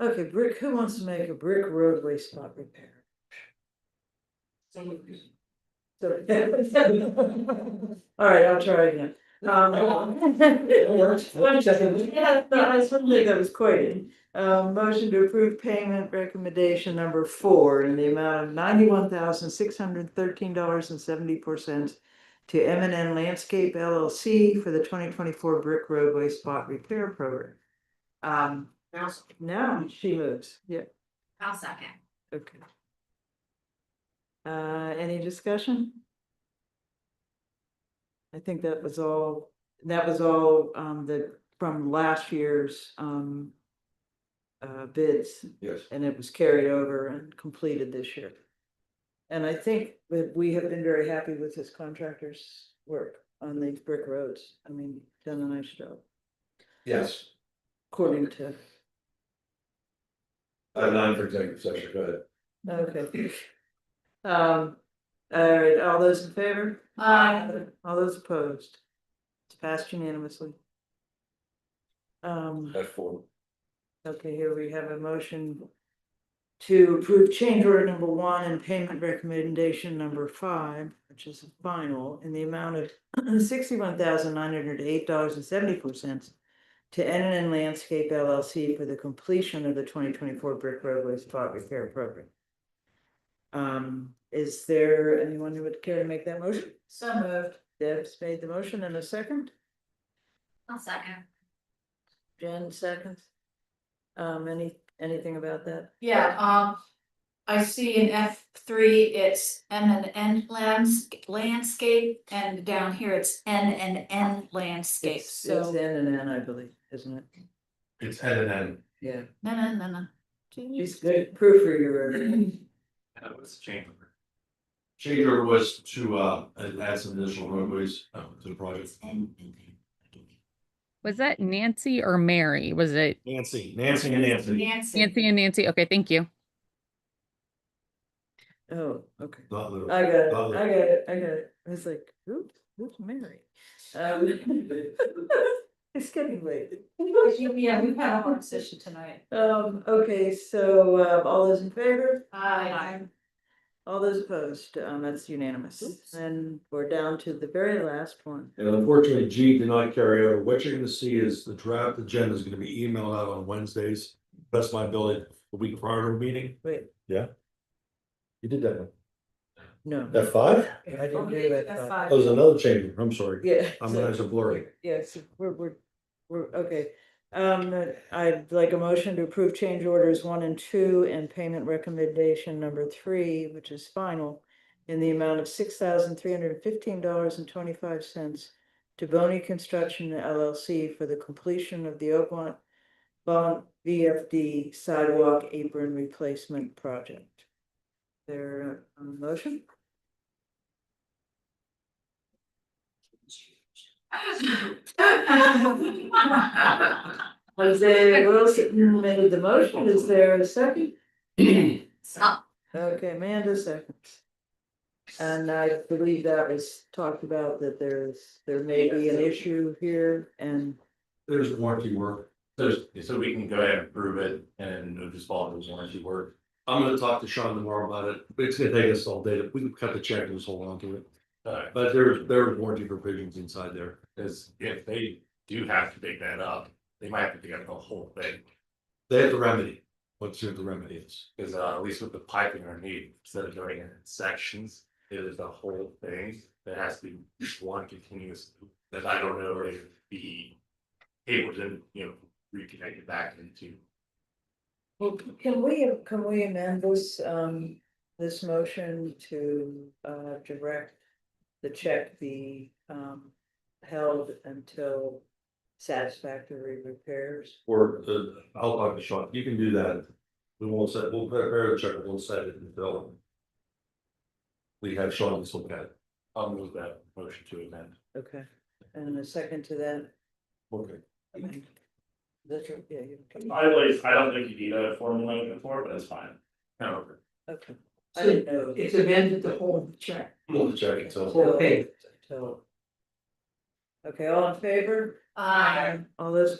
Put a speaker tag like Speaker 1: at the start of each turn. Speaker 1: Okay, brick, who wants to make a brick roadway spot repair? So. All right, I'll try again. Um. It worked. One second. Yeah, no, I certainly that was quoted. Um, motion to approve payment recommendation number four in the amount of ninety-one thousand, six hundred thirteen dollars and seventy-four cents to M and N Landscape LLC for the twenty twenty-four brick roadway spot repair program. Um, now she moves, yeah,
Speaker 2: I'll second.
Speaker 1: okay. Uh, any discussion? I think that was all, that was all, um, the, from last year's, um. Uh, bids,
Speaker 3: Yes.
Speaker 1: and it was carried over and completed this year. And I think that we have been very happy with this contractor's work on these brick roads, I mean, done a nice job,
Speaker 3: Yes.
Speaker 1: according to.
Speaker 3: I'm not for executive session, go ahead.
Speaker 1: Okay. Um, all right, all those in favor?
Speaker 2: Aye.
Speaker 1: All those opposed? It's passed unanimously. Um,
Speaker 3: F four.
Speaker 1: okay, here we have a motion to approve change order number one and payment recommendation number five, which is final, in the amount of sixty-one thousand nine hundred eight dollars and seventy-four cents to N N N Landscape LLC for the completion of the twenty twenty-four brick roadway spot repair program. Um, is there anyone who would care to make that motion?
Speaker 2: So moved.
Speaker 1: Deb's made the motion and a second,
Speaker 2: I'll second.
Speaker 1: Jen seconds. Um, any, anything about that?
Speaker 2: Yeah, um, I see in F three, it's M and N lands, landscape, and down here it's N and N landscape,
Speaker 1: It's- It's
Speaker 2: so.
Speaker 1: N and N, I believe, isn't it?
Speaker 3: It's N and N.
Speaker 1: Yeah.
Speaker 2: No, no, no, no.
Speaker 1: She's good proofreader.
Speaker 3: And it was Chamber. Chamber was to uh add some additional roadways uh, to the project.
Speaker 2: N and N.
Speaker 4: Was that Nancy or Mary? Was it
Speaker 3: Nancy, Nancy and Nancy.
Speaker 2: Nancy,
Speaker 4: Nancy and Nancy? Okay, thank you.
Speaker 1: Oh, okay.
Speaker 3: The other-
Speaker 1: I got it, I
Speaker 3: Oh.
Speaker 1: got it, I got it. I was like, who, who's Mary? Um, It's getting late.
Speaker 2: yeah, we've had a hard session tonight.
Speaker 1: Um, okay, so, uh, all those in favor?
Speaker 2: Aye.
Speaker 1: All those opposed, um, that's unanimous.
Speaker 2: Oops.
Speaker 1: And we're down to the very last one.
Speaker 3: And unfortunately, G did not carry over. What you're gonna see is the draft agenda is gonna be emailed out on Wednesdays. Best of my ability, the week prior to the meeting.
Speaker 1: Wait,
Speaker 3: You did that one.
Speaker 1: no.
Speaker 3: F five?
Speaker 1: I didn't do that.
Speaker 2: That's
Speaker 1: thought.
Speaker 2: fine.
Speaker 3: That was another chamber. I'm sorry.
Speaker 1: Yeah.
Speaker 3: I'm gonna have to blur it.
Speaker 1: Yes, we're, we're, we're, okay. Um, I'd like a motion to approve change orders one and two and payment recommendation number three, which is final. In the amount of six thousand three hundred and fifteen dollars and twenty-five cents to Boney Construction LLC for the completion of the Oakmont. Bond VFD sidewalk apron replacement project. There, a motion? Jose Wilson made the motion, is there a second?
Speaker 2: Stop.
Speaker 1: Okay, Amanda seconds. And I believe that was talked about that there's, there may be an issue here and,
Speaker 3: There's warranty work.
Speaker 5: So, so we can go ahead and approve it and it'll just follow those warranty work.
Speaker 3: I'm gonna talk to Sean tomorrow about it. It's gonna take us all day. If we can cut the check and just hold on to it.
Speaker 5: Alright,
Speaker 3: But there, there are warranty provisions inside there.
Speaker 5: because if they do have to dig that up, they might have to dig up the whole thing.
Speaker 3: They have the remedy. What's your, the remedy is?
Speaker 5: Because uh, at least with the piping underneath, instead of doing it in sections, it is the whole thing that has to be just one continuous. loop That I don't know if the cable didn't, you know, reconnect it back into.
Speaker 1: well, can we, can we amend this, um, this motion to, uh, direct the check be, um, held until satisfactory repairs?
Speaker 3: Or uh, I'll talk to Sean. You can do that. We won't set, we'll prepare a check, we'll set it in development. We have Sean just look at it.
Speaker 5: I'll move that motion to amend.
Speaker 1: Okay, and a second to that.
Speaker 3: Okay.
Speaker 1: That's right, yeah, you-
Speaker 5: always, I don't think you need a formal motion for, but it's fine. No,
Speaker 1: okay. I didn't know.
Speaker 6: It's amended the whole check,
Speaker 3: We'll check it.
Speaker 6: the
Speaker 3: So
Speaker 6: whole thing.
Speaker 1: So- Okay, all in favor?
Speaker 2: Aye.
Speaker 1: All those